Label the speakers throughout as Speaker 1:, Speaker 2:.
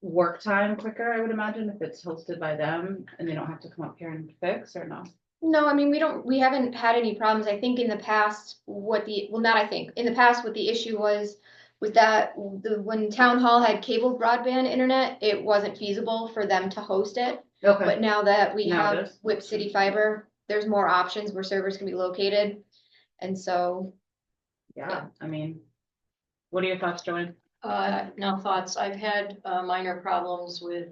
Speaker 1: work time quicker, I would imagine, if it's hosted by them and they don't have to come up here and fix or no?
Speaker 2: No, I mean, we don't, we haven't had any problems. I think in the past, what the, well, not I think, in the past, what the issue was, was that the, when town hall had cable broadband internet, it wasn't feasible for them to host it.
Speaker 1: Okay,
Speaker 2: But now that we
Speaker 1: Now it
Speaker 2: have
Speaker 1: is.
Speaker 2: Whip City Fiber, there's more options where servers can be located. And so,
Speaker 1: yeah, I mean, what are your thoughts, Joanne?
Speaker 3: Uh, no thoughts. I've had uh, minor problems with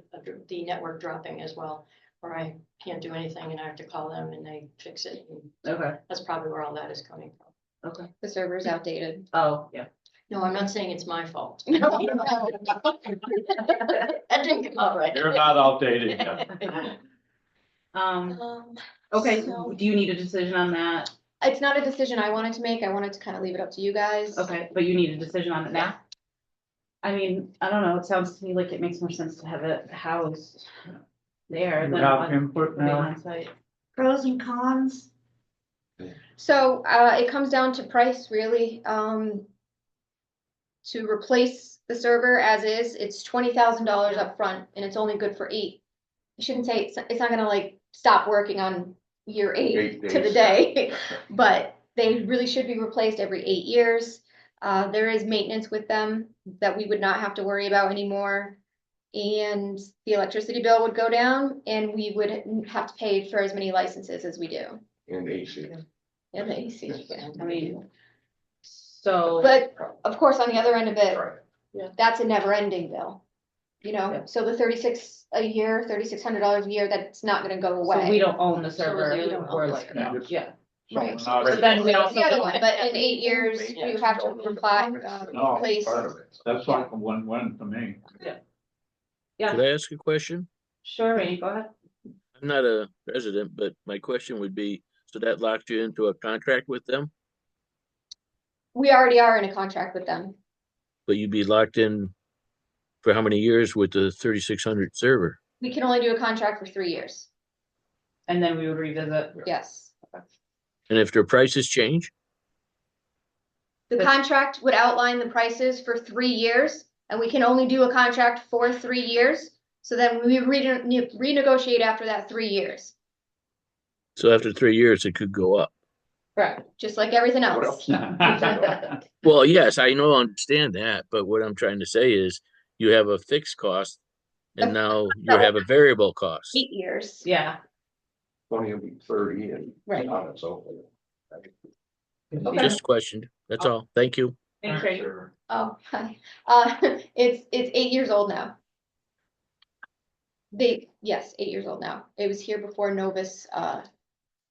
Speaker 3: the network dropping as well, where I can't do anything and I have to call them and they fix it. And
Speaker 1: Okay,
Speaker 3: That's probably where all that is coming from.
Speaker 1: okay,
Speaker 2: the server's outdated.
Speaker 1: oh, yeah.
Speaker 3: No, I'm not saying it's my fault.
Speaker 2: No.
Speaker 3: That didn't come out right.
Speaker 4: You're not outdated yet.
Speaker 1: Um,
Speaker 3: Um,
Speaker 1: okay,
Speaker 3: So-
Speaker 1: do you need a decision on that?
Speaker 2: It's not a decision I wanted to make. I wanted to kind of leave it up to you guys.
Speaker 1: Okay, but you need a decision on it now? I mean, I don't know, it sounds to me like it makes more sense to have it housed there
Speaker 4: You
Speaker 1: than
Speaker 4: have
Speaker 1: on
Speaker 4: input
Speaker 1: than
Speaker 4: now?
Speaker 1: on site.
Speaker 5: pros and cons.
Speaker 2: So uh, it comes down to price, really. Um, to replace the server as is, it's twenty thousand dollars upfront, and it's only good for eight. I shouldn't say it's, it's not gonna like stop working on year eight
Speaker 6: Eight
Speaker 2: to the
Speaker 6: days.
Speaker 2: day, but they really should be replaced every eight years. Uh, there is maintenance with them that we would not have to worry about anymore. And the electricity bill would go down, and we would have to pay for as many licenses as we do.
Speaker 6: And AC.
Speaker 2: in the AC.
Speaker 1: I mean, so.
Speaker 2: But of course, on the other end of it,
Speaker 6: Right.
Speaker 2: that's a never ending bill. You know,
Speaker 1: Yeah.
Speaker 2: so the thirty six a year, thirty six hundred dollars a year, that's not gonna go
Speaker 1: So we
Speaker 2: away.
Speaker 1: don't own the
Speaker 3: So
Speaker 1: server,
Speaker 3: we don't own
Speaker 1: we're
Speaker 3: the
Speaker 1: like,
Speaker 3: server.
Speaker 1: no, yeah,
Speaker 2: Right.
Speaker 4: Not
Speaker 1: so then we
Speaker 2: That's
Speaker 1: also.
Speaker 2: the other one, but in eight years,
Speaker 6: Yeah.
Speaker 2: you have to reply, uh,
Speaker 4: No.
Speaker 2: replace.
Speaker 6: Part of it.
Speaker 4: That's like a one-one to me.
Speaker 7: Could I ask a question?
Speaker 1: Sure, Rainey, go ahead.
Speaker 7: I'm not a resident, but my question would be, so that locks you into a contract with them?
Speaker 2: We already are in a contract with them.
Speaker 7: But you'd be locked in for how many years with the thirty-six hundred server?
Speaker 2: We can only do a contract for three years.
Speaker 1: And then we would revisit.
Speaker 2: Yes.
Speaker 7: And if their prices change,
Speaker 2: The
Speaker 1: But-
Speaker 2: contract would outline the prices for three years, and we can only do a contract for three years. So then we rene- renegotiate after that three years,
Speaker 7: so after three years, it could go up.
Speaker 1: Correct.
Speaker 2: just like everything
Speaker 1: Oh.
Speaker 6: What
Speaker 2: else.
Speaker 6: else?
Speaker 7: Well, yes, I know, I understand that, but what I'm trying to say is you have a fixed cost and now you have a variable cost.
Speaker 2: Eight years.
Speaker 1: Yeah,
Speaker 6: Twenty will be thirty and.
Speaker 1: Right.
Speaker 6: On its own.
Speaker 1: okay,
Speaker 7: Just questioned, that's all. Thank you.
Speaker 1: thanks, Rainey.
Speaker 4: Sure.
Speaker 2: Oh, hi. Uh, it's, it's eight years old now. They, yes, eight years old now. It was here before Novus, uh,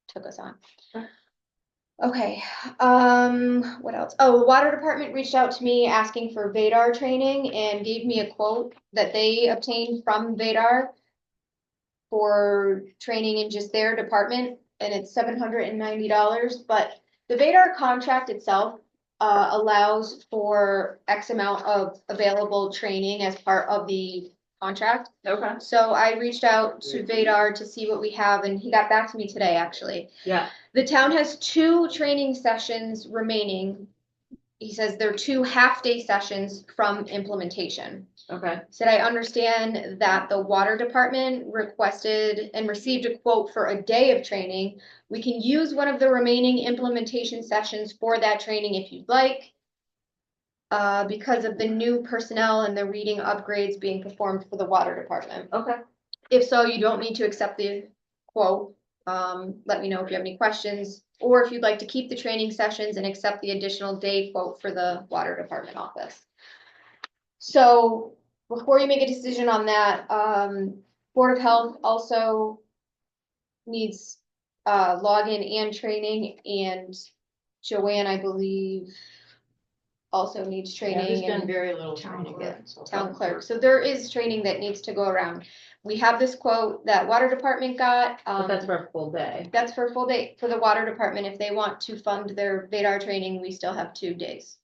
Speaker 2: took us on. Okay, um, what else? Oh, the water department reached out to me asking for Vadar training and gave me a quote that they obtained from Vadar for training in just their department, and it's seven hundred and ninety dollars, but the Vadar contract itself uh, allows for X amount of available training as part of the contract.
Speaker 1: Okay,
Speaker 2: So I reached out to Vadar to see what we have, and he got back to me today, actually.
Speaker 1: yeah,
Speaker 2: The town has two training sessions remaining. He says they're two half-day sessions from implementation.
Speaker 1: okay,
Speaker 2: Said I understand that the water department requested and received a quote for a day of training. We can use one of the remaining implementation sessions for that training if you'd like. Uh, because of the new personnel and the reading upgrades being performed for the water department.
Speaker 1: okay,
Speaker 2: If so, you don't need to accept the quote. Um, let me know if you have any questions, or if you'd like to keep the training sessions and accept the additional day quote for the water department office. So before you make a decision on that, um, Board of Health also needs uh, login and training, and Joanne, I believe, also needs
Speaker 3: yeah, There's
Speaker 2: training.
Speaker 3: been
Speaker 2: and-
Speaker 3: very little
Speaker 5: Town
Speaker 3: training.
Speaker 2: clerk.
Speaker 3: so-
Speaker 2: town
Speaker 1: Oh,
Speaker 2: clerk, so there is training that needs to go around. We have this quote that water department got,
Speaker 1: but
Speaker 2: um,
Speaker 1: Oh, that's for a full day,
Speaker 2: that's for a full day, for the water department, if they want to fund their Vadar training, we still have two days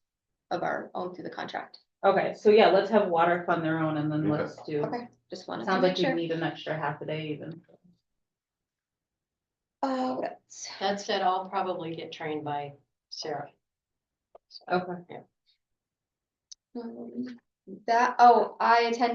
Speaker 2: of our own through the contract,
Speaker 1: okay, so yeah, let's have water fund their own and then
Speaker 6: Okay.
Speaker 1: let's do.
Speaker 2: okay, just wanted to
Speaker 1: Mm-hmm. Sounds
Speaker 2: make
Speaker 1: like you
Speaker 2: sure.
Speaker 1: need an extra half a day even,
Speaker 2: Uh, what else?
Speaker 3: That said, I'll probably get trained by Sarah.
Speaker 1: okay.
Speaker 2: Um, That, oh, I attended